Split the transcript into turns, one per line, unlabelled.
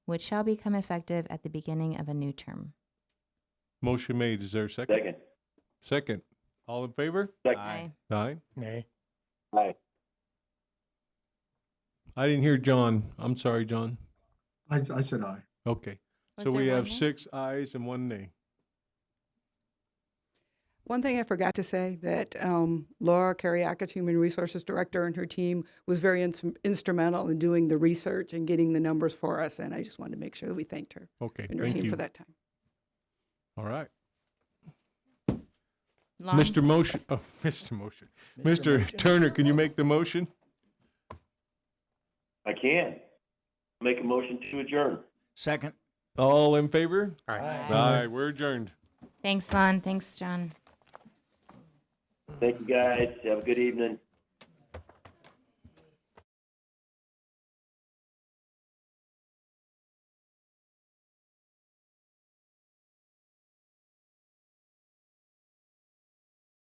which shall become effective at the beginning of a new term.
Motion made. Is there a second?
Second.
Second. All in favor?
Aye.
Aye.
Nay.
Aye.
I didn't hear John. I'm sorry, John.
I, I said aye.
Okay. So
Was there
we
one
have
nay?
six ayes and one nay.
One thing I forgot to say that um, Laura Kariakis, Human Resources Director, and her team was very ins- instrumental in doing the research and getting the numbers for us. And I just wanted to make sure that we thanked her
Okay,
and her
thank
team
you.
for that time.
All right.
Long-
Mr. Motion, oh, Mr. Motion.
Mr.
Mr. Turner, can you make the motion?
I can. Make a motion to adjourn.
Second.
All in favor?
Aye.
Aye, we're adjourned.
Thanks, Lon. Thanks, John.
Thank you, guys. Have a good evening.